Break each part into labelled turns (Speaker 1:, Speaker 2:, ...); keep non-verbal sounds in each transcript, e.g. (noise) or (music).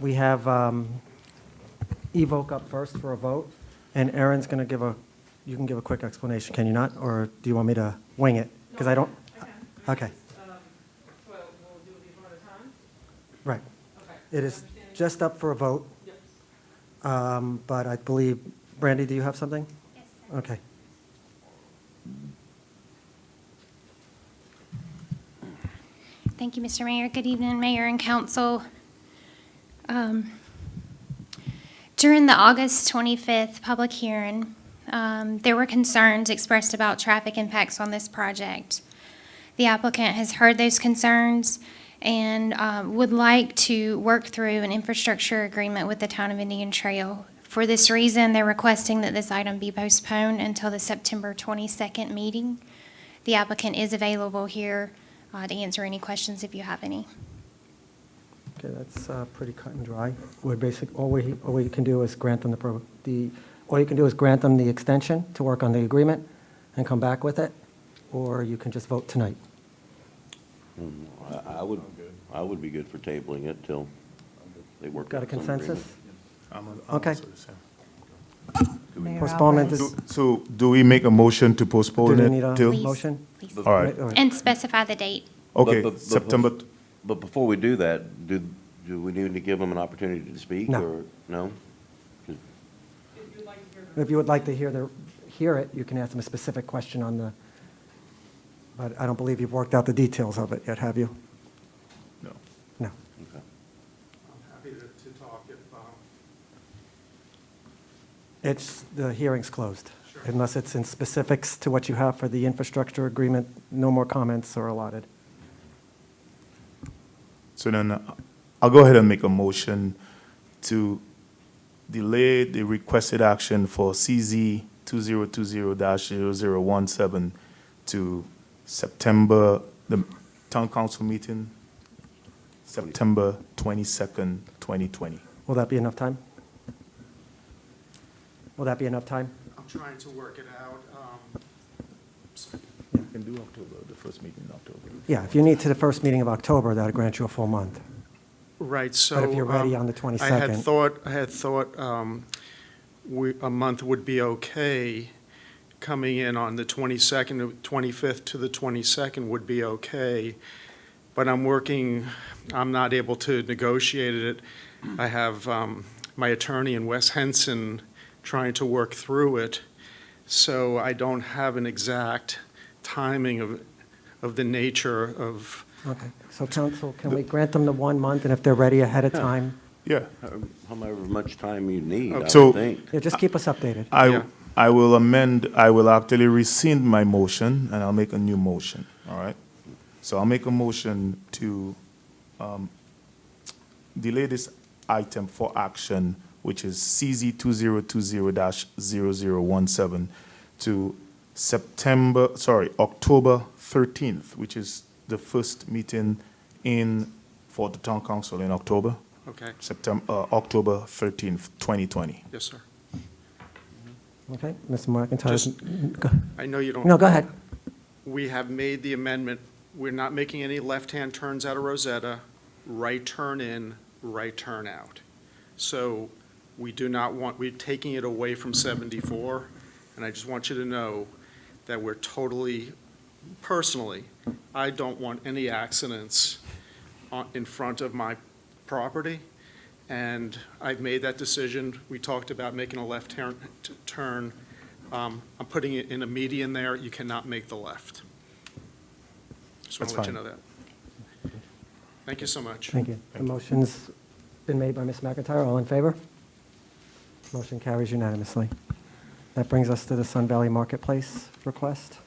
Speaker 1: We have um, Evoke up first for a vote, and Erin's going to give a, you can give a quick explanation, can you not? Or do you want me to wing it? Because I don't,
Speaker 2: Okay.
Speaker 1: okay,
Speaker 2: So Um, we'll do these one at a time?
Speaker 1: right.
Speaker 2: Okay.
Speaker 1: It is
Speaker 2: Understanding-
Speaker 1: just up for a vote,
Speaker 2: Yes.
Speaker 1: um, but I believe, Brandy, do you have something?
Speaker 3: Yes, sir.
Speaker 1: Okay.
Speaker 3: Thank you, Mr. Mayor. Good evening, Mayor and Council. Um, During the August 25th public hearing, um, there were concerns expressed about traffic impacts on this project. The applicant has heard those concerns and uh, would like to work through an infrastructure agreement with the Town of Indian Trail. For this reason, they're requesting that this item be postponed until the September 22nd meeting. The applicant is available here uh, to answer any questions if you have any.
Speaker 1: Okay, that's uh, pretty cut and dry. We're basic, all we, all we can do is grant them the, pro- the, all you can do is grant them the extension to work on the agreement and come back with it, or you can just vote tonight.
Speaker 4: I- I would, I would be good for tabling it till they work
Speaker 1: Got a
Speaker 4: out some agreement.
Speaker 1: consensus?
Speaker 5: I'm on- I'm
Speaker 1: Okay.
Speaker 5: also the same.
Speaker 6: Mayor
Speaker 1: Postponement
Speaker 6: Alvarez.
Speaker 1: is,
Speaker 5: Do- So do we make a motion to
Speaker 1: do
Speaker 5: postpone
Speaker 1: we need
Speaker 5: it till?
Speaker 1: a
Speaker 3: Please.
Speaker 1: motion?
Speaker 3: Please.
Speaker 5: All right,
Speaker 1: All right.
Speaker 3: And specify the date.
Speaker 5: okay,
Speaker 4: But- but- but-
Speaker 5: September, t-
Speaker 4: But before we do that, do, do we need to give them an opportunity to speak?
Speaker 1: No.
Speaker 4: or No?
Speaker 2: If you'd like to hear
Speaker 1: If you would like to hear the, hear it, you can ask them a specific question on the, but I don't believe you've worked out the details of it yet, have you?
Speaker 5: no.
Speaker 1: No.
Speaker 4: Okay.
Speaker 7: I'm happy to, to talk if, um,
Speaker 1: It's, the hearing's closed. Unless it's in specifics to what you have for the infrastructure agreement, no more comments are allotted.
Speaker 5: So then uh, I'll go ahead and make a motion to delay the requested action for CZ 2020-0017 to September, the town council meeting, September 22nd, 2020.
Speaker 1: Will that be enough time? Will that be enough time?
Speaker 7: I'm trying to work it out. Um, so
Speaker 5: We can do October, the first meeting in October.
Speaker 1: Yeah, if you need to the first meeting of October, that'll grant you a full month.
Speaker 7: Right, so.
Speaker 1: But if you're ready
Speaker 7: um,
Speaker 1: on the
Speaker 7: I
Speaker 1: 22nd.
Speaker 7: had thought, I had thought um, we, a month would be okay. Coming in on the 22nd, 25th to the 22nd would be okay. But I'm working, I'm not able to negotiate it. I have um, my attorney in West Henson trying to work through it. So I don't have an exact timing of, of the nature of,
Speaker 1: Okay, so council, can we grant them the one month, and if they're ready ahead of time,
Speaker 5: Yeah.
Speaker 4: However- However much time you need, I
Speaker 5: So-
Speaker 4: would think.
Speaker 1: yeah, just keep us updated.
Speaker 5: I,
Speaker 7: Yeah.
Speaker 5: I will amend, I will actually rescind my motion, and I'll make a new motion, all right? So I'll make a motion to um, delay this item for action, which is CZ 2020-0017, to September, sorry, October 13th, which is the first meeting in, for the town council in October,
Speaker 7: okay,
Speaker 5: September, October 13th, 2020.
Speaker 7: yes, sir.
Speaker 1: Okay, Mr. McIntyre?
Speaker 7: Just-
Speaker 1: go-
Speaker 7: I know you don't.
Speaker 1: No, go ahead.
Speaker 7: we have made the amendment, we're not making any left-hand turns out of Rosetta, right turn in, right turn out. So we do not want, we're taking it away from 74, and I just want you to know that we're totally, personally, I don't want any accidents on- in front of my property, and I've made that decision. We talked about making a left turn, t- turn. Um, I'm putting it in a median there, you cannot make the left. Just
Speaker 5: That's
Speaker 7: want to let you
Speaker 5: fine.
Speaker 7: know that. Thank you so much.
Speaker 1: Thank you. The motion's been made by Ms. McIntyre. All in favor? Motion carries unanimously. That brings us to the Sun Valley Marketplace request.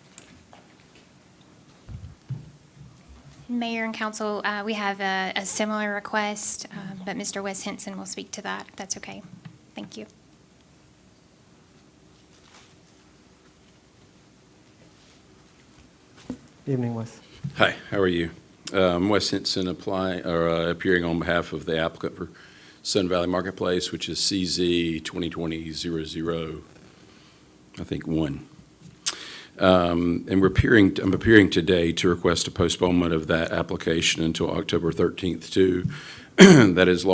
Speaker 3: Mayor and council, uh, we have a a similar request, uh, but Mr. Wes Henson will speak to that, if that's okay. Thank you.
Speaker 1: Evening, Wes.
Speaker 8: Hi, how are you? Uh, I'm Wes Henson, apply, or uh, appearing on behalf of the applicant for Sun Valley Marketplace, which is CZ 2020-00, I think, one. Um, And we're appearing, I'm appearing today to request a postponement of (clears throat) that application until October 13th, too. That is